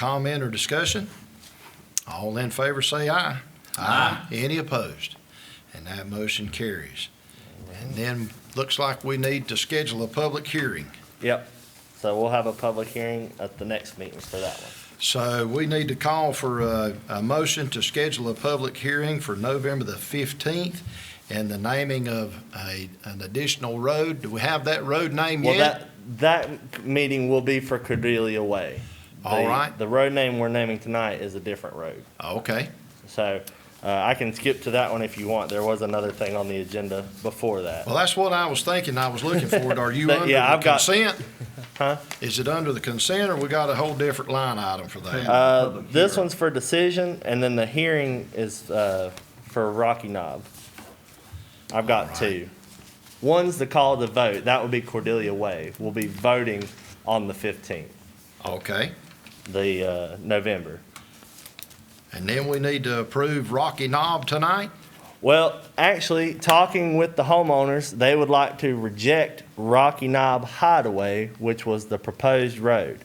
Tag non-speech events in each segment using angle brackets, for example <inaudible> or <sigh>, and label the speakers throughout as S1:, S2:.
S1: Comment or discussion? All in favor say aye. Aye. Any opposed? And that motion carries. And then, looks like we need to schedule a public hearing.
S2: Yep. So we'll have a public hearing at the next meeting for that one.
S1: So we need to call for a, a motion to schedule a public hearing for November the 15th and the naming of a, an additional road. Do we have that road name
S2: Well,
S1: yet?
S2: that, that meeting will be for Cordelia Way.
S1: All
S2: The-
S1: right.
S2: The road name we're naming tonight is a different road.
S1: Okay,
S2: So, uh, I can skip to that one if you want. There was another thing on the agenda before that.
S1: well, that's what I was thinking, I was looking for it. Are
S2: <laughs>
S1: you
S2: But,
S1: under
S2: yeah,
S1: the
S2: I've got-
S1: consent?
S2: <laughs> Huh?
S1: Is it under the consent, or we got a whole different line item for that?
S2: Uh, this one's for decision, and then the hearing is, uh, for Rocky Knob. I've got two. One's the call to vote. That would be Cordelia Way. We'll be voting on the fifteenth,
S1: Okay,
S2: the, uh, November.
S1: and then we need to approve Rocky Knob tonight?
S2: Well, actually, talking with the homeowners, they would like to reject Rocky Knob Hideaway, which was the proposed road.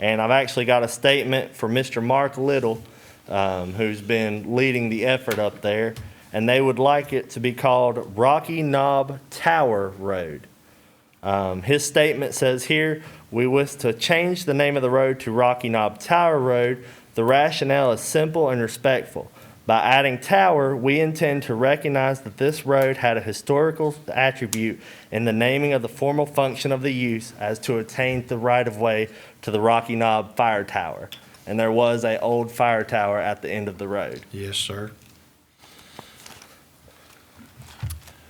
S2: And I've actually got a statement from Mr. Mark Little, um, who's been leading the effort up there, and they would like it to be called Rocky Knob Tower Road. Um, his statement says here, we wish to change the name of the road to Rocky Knob Tower Road. The rationale is simple and respectful. By adding tower, we intend to recognize that this road had a historical attribute in the naming of the formal function of the use as to attain the right of way to the Rocky Knob Fire Tower. And there was a old fire tower at the end of the
S3: <laughs>
S2: road.
S1: Yes, sir.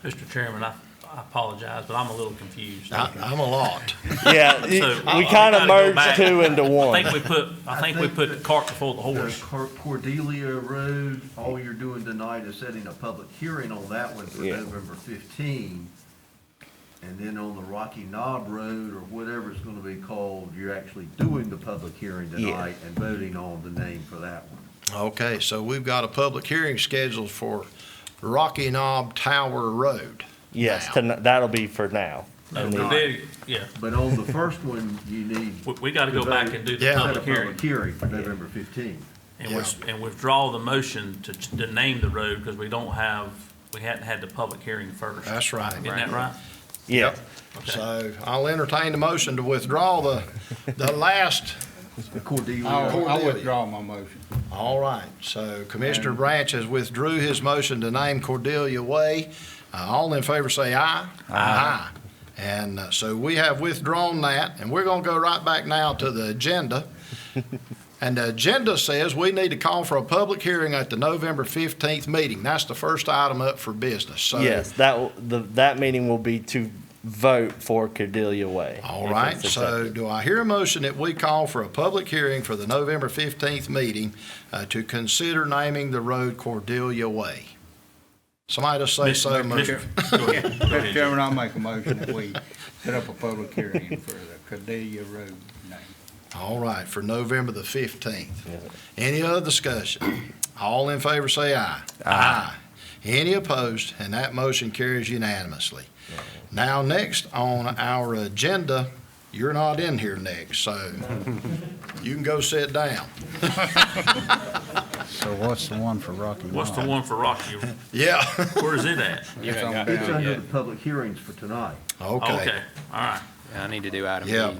S3: Mr. Chairman, I I apologize, but I'm a little confused.
S1: I, I'm a lot.
S2: Yeah,
S3: So,
S2: we
S3: I- I
S2: kind
S3: gotta
S2: of
S3: go
S2: merged
S3: back.
S2: two
S3: <laughs>
S2: into
S3: I
S2: one.
S1: Oh.
S3: think we put, I think we put the cart before the
S4: The
S3: horse.
S4: Cor- Cordelia Road, all you're doing tonight is setting a public hearing on that one for
S2: Yeah.
S4: November 15. And then on the Rocky Knob Road, or whatever it's gonna be called, you're actually doing the public hearing
S2: Yeah.
S4: tonight and voting on the name for that one.
S1: Okay, so we've got a public hearing scheduled for Rocky Knob Tower Road.
S2: Yes,
S1: now.
S2: tonight- that'll be for now.
S3: No,
S2: And
S3: we
S2: then-
S3: did- Yeah,
S4: But on the first one, you need.
S3: we, we gotta go back and do the
S1: Yeah.
S4: Set a
S3: public hearing
S4: public hearing for November 15.
S3: and with- and withdraw the motion to, to name the road because we don't have, we hadn't had the public hearing first.
S1: That's right.
S3: Isn't that right?
S2: Yeah.
S3: Okay.
S1: So I'll entertain the motion to withdraw the, the last,
S4: The Cordelia.
S1: Oh.
S5: I'll I'll
S1: Cordelia.
S5: withdraw my motion.
S1: all right. So Commissioner Branch has withdrew his motion to name Cordelia Way. Uh, All in favor say aye. Aye. And uh, so we have withdrawn that, and we're gonna go right back now to the agenda. And the agenda says we need to call for a public hearing at the November fifteenth meeting. That's the first item up for business, so.
S2: Yes, that, will- the, that meeting will be to vote for Cordelia Way.
S1: All
S2: if
S1: right,
S2: it's
S1: so
S2: accepted.
S1: do I hear a motion that we call for a public hearing for the November 15th meeting uh, to consider naming the road Cordelia Way? Somebody just say
S3: Mis-
S1: so
S3: mis-
S1: moved.
S3: go ahead, go
S5: Mr.
S3: ahead,
S5: Chairman, I'll make a motion that we set up a public hearing for the Cordelia Road name.
S1: All right, for November the 15th. Any other discussion? All in favor say aye. Aye. Any opposed? And that motion carries unanimously. Now, next on our agenda, you're not in here next, so you can go sit down.
S6: So what's the one for Rocky
S3: What's the
S6: Mountain?
S3: one for Rocky?
S1: Yeah, <laughs>
S3: Where is it at?
S7: You haven't got
S4: It's
S7: down
S4: under
S7: yet.
S4: the public hearings for tonight.
S1: okay.
S3: Okay, all right.
S7: I need to do item E. B.
S1: Yeah.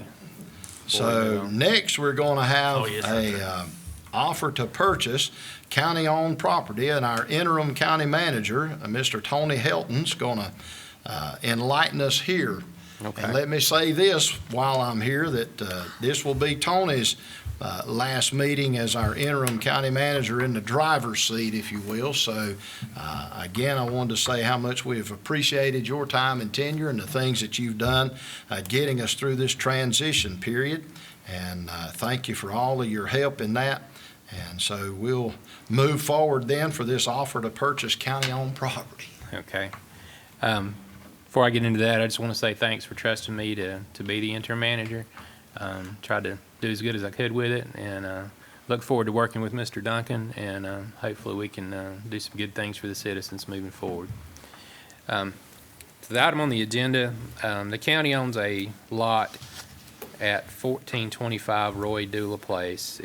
S1: So next, we're going to have
S3: Oh, yes,
S1: a
S3: sir.
S1: um, offer to purchase county-owned property, and our interim county manager, uh, Mr. Tony Helton's going to enlighten us here.
S7: Okay.
S1: And let me say this while I'm here, that uh, this will be Tony's uh, last meeting as our interim county manager in the driver's seat, if you will. So uh, again, I wanted to say how much we have appreciated your time and tenure and the things that you've done uh, getting us through this transition period. And uh, thank you for all of your help in that. And so we'll move forward then for this offer to purchase county-owned property.
S7: Okay. Um, Before I get into that, I just want to say thanks for trusting me to, to be the interim manager. Um, Tried to do as good as I could with it, and uh, look forward to working with Mr. Duncan, and uh, hopefully we can uh, do some good things for the citizens moving forward. Um, so The item on the agenda, um, the county owns a lot at 1425 Roy Dula Place.